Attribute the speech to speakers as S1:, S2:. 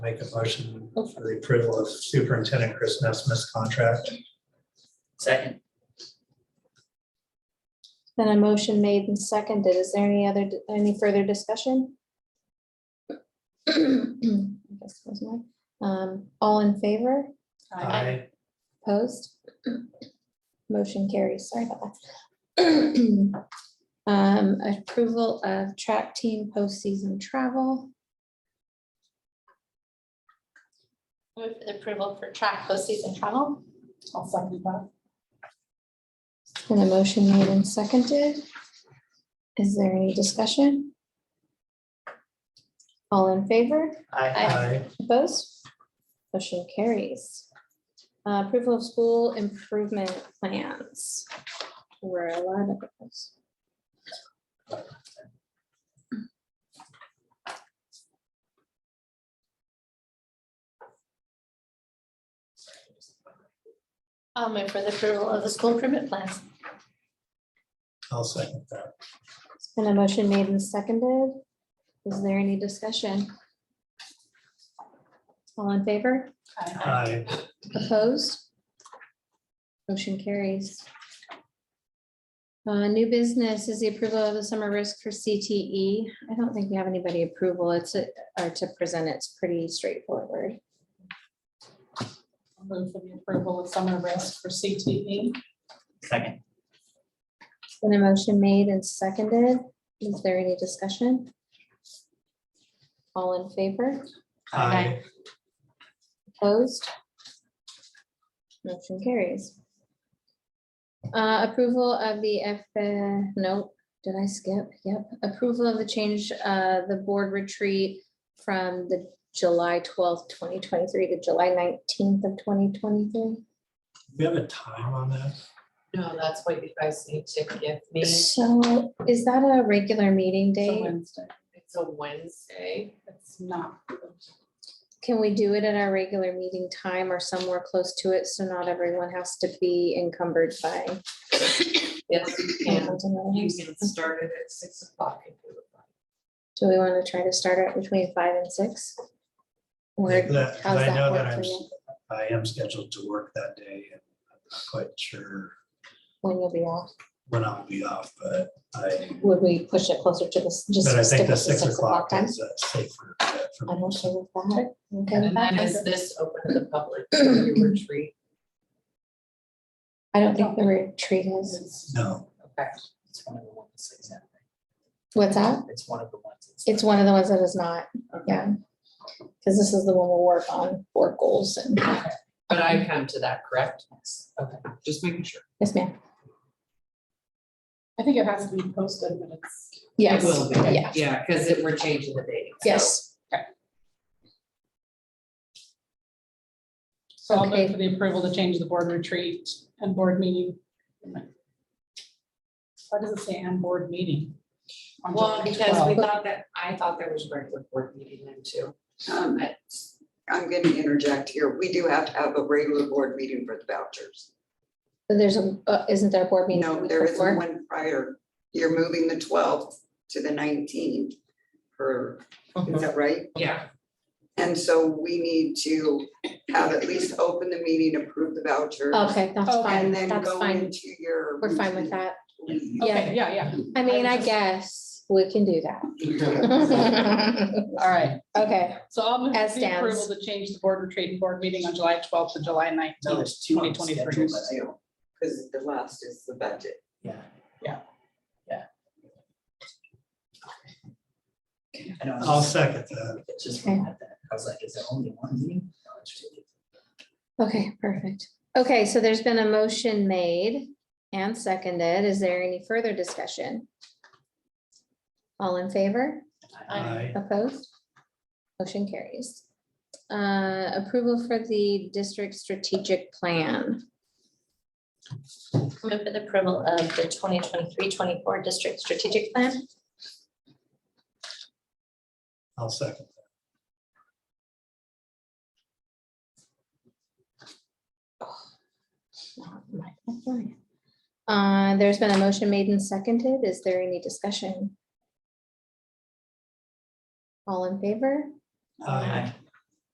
S1: Make a motion for the approval of Superintendent Chris Nesmith's contract.
S2: Second,
S3: Then a motion made and seconded. Is there any other, any further discussion? I guess there's none. Um, All in favor?
S1: Aye.
S3: Opposed? Motion carries. Sorry about that. Um, Approval of track team postseason travel.
S4: Move for the approval for track postseason travel. I'll second that.
S3: And a motion made and seconded. Is there any discussion? All in favor?
S2: aye,
S1: Aye.
S3: Opposed? Motion carries. Uh, Approval of school improvement plans. We're allowed to. propose.
S4: I'll move for the approval of the school improvement plans.
S1: I'll second that.
S3: It's been a motion made and seconded. Is there any discussion? All in favor?
S1: Aye.
S3: Opposed? Motion carries. Uh, New business is the approval of the summer risk for CTE. I don't think we have anybody approval. It's, a- or to present, it's pretty straightforward.
S4: I'll move for the approval of summer risk for CTE.
S2: second,
S3: It's Been a motion made and seconded. Is there any discussion? All in favor?
S1: Aye.
S3: Opposed? Motion carries. Uh, Approval of the F, uh, no, did I skip? Yep. Approval of the change, uh, the board retreat from the July twelfth, twenty twenty-three to July nineteenth of twenty twenty-three.
S1: Do we have a time on that?
S5: No, that's what you guys need to give me. It's
S3: So is that a regular meeting
S4: It's a
S3: day?
S4: Wednesday.
S5: a Wednesday.
S4: It's not.
S3: Can we do it at our regular meeting time or somewhere close to it so not everyone has to be encumbered by?
S5: Yes, you can.
S3: plans and other
S5: You
S3: things?
S5: can start it at six o'clock if you would like.
S3: Do we want to try to start at between five and six? Or
S1: Like that, 'cause
S3: how's
S1: I know
S3: that
S1: that
S3: work for
S1: I'm,
S3: you?
S1: I am scheduled to work that day and I'm not quite sure
S3: When you'll be off?
S1: when I'll be off, but I,
S3: Would we push it closer to this, just
S1: but I
S3: stick
S1: think
S3: with the
S1: the six o'clock
S3: time?
S1: is uh, safer. uh, for me.
S3: I'm okay with that. Okay with
S5: And then is
S3: that.
S5: this open to the public, your retreat?
S3: I don't think the retreat is.
S1: No,
S5: Okay.
S2: it's one of the ones that's exempt.
S3: What's that?
S2: It's one of the ones. that's-
S3: It's one of the ones that is not, yeah. Because this is the one we'll work on, board goals and,
S5: But I come to that, correct? Okay, just making sure.
S3: yes, ma'am.
S4: I think it has to be posted, but it's.
S5: It
S3: Yes,
S5: will be,
S3: yeah,
S5: yeah, because we're changing the date. so
S3: yes.
S4: So I'll move
S3: Okay.
S4: for the approval to change the board retreat and board meeting. Why does it say and board meeting? on
S5: Well,
S4: July
S5: because we
S4: 12th?
S5: thought that, I thought there was a regular board meeting then too.
S6: Um, it's- I'm going to interject here. We do have to have a regular board meeting for the vouchers.
S3: But There's a, uh, isn't there a board meeting? the
S6: No,
S3: week
S6: there isn't
S3: before?
S6: one prior. You're moving the twelfth to the nineteenth for, is that right?
S5: Yeah,
S6: And so we need to have at least open the meeting, approve the vouchers,
S3: Okay, that's
S4: Okay,
S3: fine,
S6: And then
S3: that's
S6: go
S3: fine.
S6: into your.
S3: We're fine with that.
S6: that.
S4: Okay, yeah, yeah.
S3: I mean, I guess we can do that.
S4: All right.
S3: Okay,
S4: So I'll move
S3: As
S4: for the approval
S3: stands.
S4: to change the board retreat and board meeting on July twelfth to July
S2: No,
S4: nineteenth,
S2: there's two
S4: twenty
S2: on
S4: twenty-three.
S2: schedule, but I-
S6: Because the last is the budget.
S2: Yeah.
S4: Yeah.
S2: Yeah. I don't
S1: I'll
S2: know,
S1: second that.
S2: it's just,
S3: Okay.
S2: I was like, is there only one meeting? No, it's two.
S3: okay, perfect. Okay, so there's been a motion made and seconded. Is there any further discussion? All in favor?
S1: Aye.
S3: Opposed? Motion carries. Uh, Approval for the district strategic plan.
S4: Move for the approval of the 2023-24 district strategic plan.
S1: I'll second.
S3: Uh, There's been a motion made and seconded. Is there any discussion? All in favor?
S1: Aye.